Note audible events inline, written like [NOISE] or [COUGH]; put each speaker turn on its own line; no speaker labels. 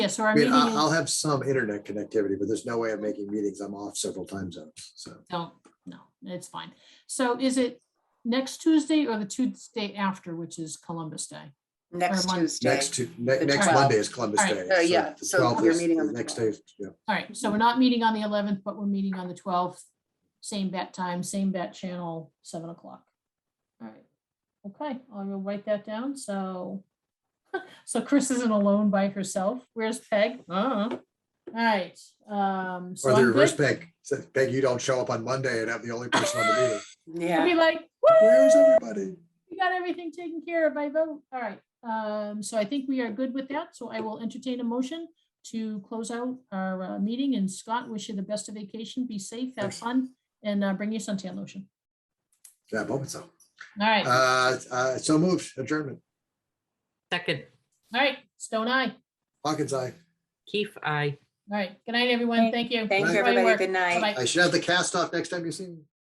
Yeah, so our
I mean,
meeting
I- I'll
is,
have some internet connectivity, but there's no way of making meetings. I'm off several time zones, so.
don't, no, it's fine. So is it next Tuesday or the Tuesday after, which is Columbus Day?
Next
Mon-
Tuesday.
Next to, ne-
The
next
12th.
Monday is Columbus
All right.
Day.
Uh, yeah,
the
so
12th
we're
is
meeting on
the
the
Next day,
12th.
yeah.
All right, so we're not meeting on the eleventh, but we're meeting on the twelfth, same bat time, same bat channel, seven o'clock. All right, okay, I will write that down, so. [LAUGHS] So Chris isn't alone by herself. Where's Peg? Uh-uh. All right, um. so
Or the
I'm
reverse
good.
Peg. So, Peg, you don't show up on Monday and I'm the only person on the meeting.
I'll
Yeah,
Be like, woo,
Where's everybody?
we got everything taken care of by vote. All right, um, so I think we are good with that, so I will entertain a motion to close out our uh, meeting, and Scott, wish you the best of vacation, be safe, have
Thanks.
fun, and uh, bring your suntan lotion.
Yeah, moment so.
All right, all
Uh, uh, so moved, adjournment.
Second,
right, Stone Eye.
Hawkins, I,
Keith, I.
All right, good night, everyone, thank you.
thank you,
Everybody
everybody.
work.
Good night.
Bye-bye.
I should have the cast off next time you see me.